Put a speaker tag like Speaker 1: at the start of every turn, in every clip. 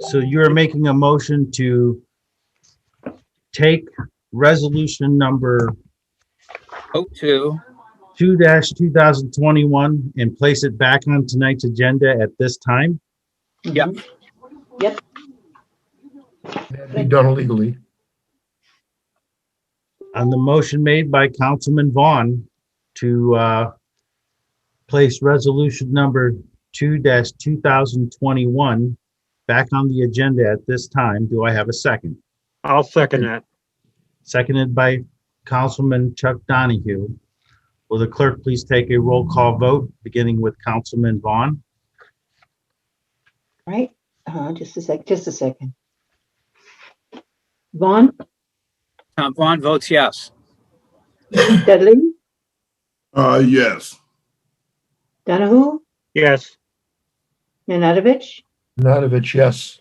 Speaker 1: So you're making a motion to take resolution number
Speaker 2: oh two,
Speaker 1: two two thousand twenty-one and place it back on tonight's agenda at this time?
Speaker 2: yep,
Speaker 3: That'd be done illegally.
Speaker 1: On the motion made by Councilman Vaughn to, uh, place resolution number two two thousand twenty-one back on the agenda at this time, do I have a second?
Speaker 4: I'll second that.
Speaker 1: Seconded by Councilman Chuck Donahue. Will the clerk please take a roll call vote, beginning with Councilman Vaughn?
Speaker 5: right? Uh, just a sec, just a second. Vaughn,
Speaker 2: Tom Vaughn votes yes.
Speaker 5: Dudley,
Speaker 6: Uh, yes.
Speaker 5: Donahue,
Speaker 4: Yes,
Speaker 5: Nanadovich,
Speaker 3: Nanavich, yes.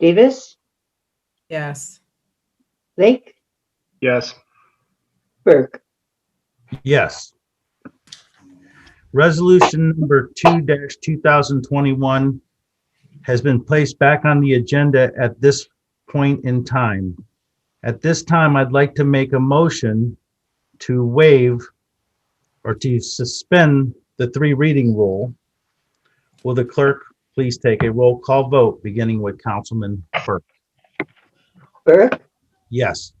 Speaker 5: Davis,
Speaker 7: yes,
Speaker 5: Lake,
Speaker 4: yes,
Speaker 5: Burke.
Speaker 1: Yes. Resolution number two two thousand twenty-one has been placed back on the agenda at this point in time. At this time, I'd like to make a motion to waive or to suspend the three reading rule. Will the clerk please take a roll call vote, beginning with Councilman Burke?
Speaker 5: Burke,
Speaker 1: Yes.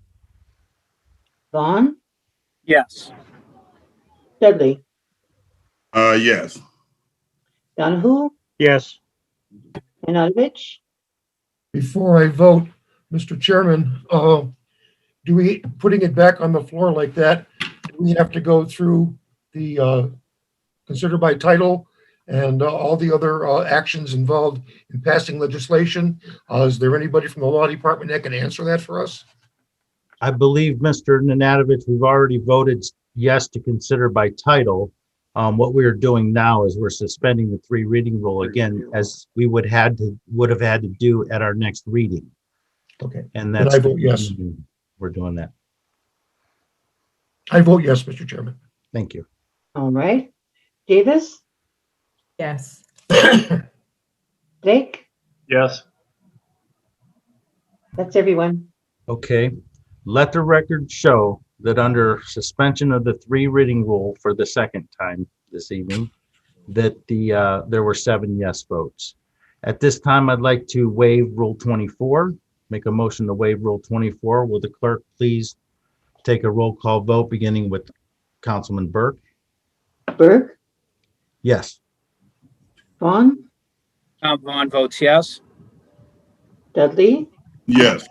Speaker 5: Vaughn,
Speaker 2: Yes,
Speaker 5: Dudley,
Speaker 6: Uh, yes.
Speaker 5: Donahue,
Speaker 4: yes,
Speaker 5: Nanadovich,
Speaker 3: Before I vote, Mr. Chairman, uh, do we, putting it back on the floor like that, do we have to go through the, uh, consider by title and uh, all the other, uh, actions involved in passing legislation? Uh, is there anybody from the law department that can answer that for us?
Speaker 1: I believe, Mr. Nanadovich, we've already voted yes to consider by title. Um, what we are doing now is we're suspending the three reading rule again, as we would had to, would have had to do at our next reading.
Speaker 3: Okay.
Speaker 1: And
Speaker 3: Then I
Speaker 1: that's.
Speaker 3: vote yes.
Speaker 1: We're doing that.
Speaker 3: I vote yes, Mr. Chairman.
Speaker 1: Thank you.
Speaker 5: all right? Davis,
Speaker 7: yes,
Speaker 5: Lake,
Speaker 4: yes.
Speaker 5: that's everyone.
Speaker 1: Okay. Let the record show that under suspension of the three reading rule for the second time this evening, that the, uh, there were seven yes votes. At this time, I'd like to waive Rule 24, make a motion to waive Rule 24. Will the clerk please take a roll call vote, beginning with Councilman Burke?
Speaker 5: Burke,
Speaker 1: Yes.
Speaker 5: Vaughn,
Speaker 2: Tom Vaughn votes yes.
Speaker 5: Dudley,
Speaker 6: Yes.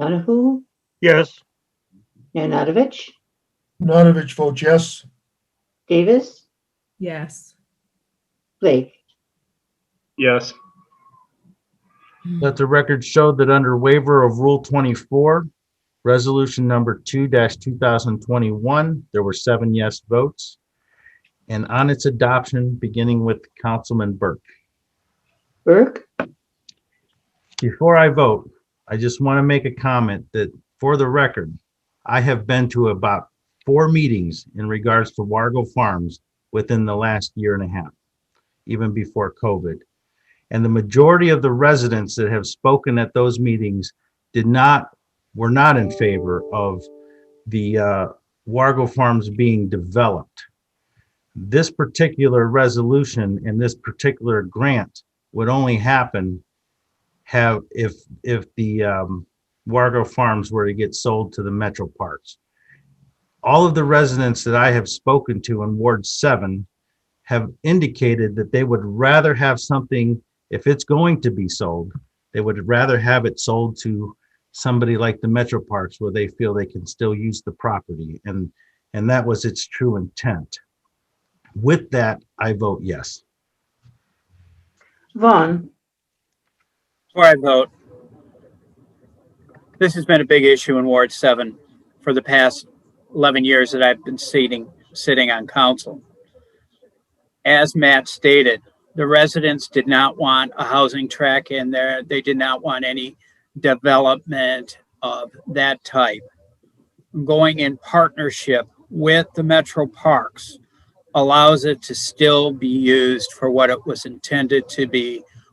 Speaker 5: Donahue,
Speaker 4: Yes,
Speaker 5: Nanadovich,
Speaker 3: Nanavich votes yes.
Speaker 5: Davis,
Speaker 7: yes,
Speaker 5: Blake.
Speaker 4: yes,
Speaker 1: Let the record show that under waiver of Rule 24, Resolution Number 2-2021, there were seven yes votes. And on its adoption, beginning with Councilman Burke.
Speaker 5: Burke,
Speaker 1: Before I vote, I just want to make a comment that, for the record, I have been to about four meetings in regards to Wargo Farms within the last year and a half, even before COVID. And the majority of the residents that have spoken at those meetings did not, were not in favor of the uh, Wargo Farms being developed. This particular resolution and this particular grant would only happen have if if the um, Wargo Farms were to get sold to the Metro Parks. All of the residents that I have spoken to in Ward Seven have indicated that they would rather have something, if it's going to be sold, they would rather have it sold to somebody like the Metro Parks where they feel they can still use the property and and that was its true intent. With that, I vote yes.
Speaker 5: Vaughn,
Speaker 2: Before I vote, this has been a big issue in Ward Seven for the past eleven years that I've been seating, sitting on council. As Matt stated, the residents did not want a housing track in there. They did not want any development of that type. Going in partnership with the Metro Parks allows it to still be used for what it was intended to be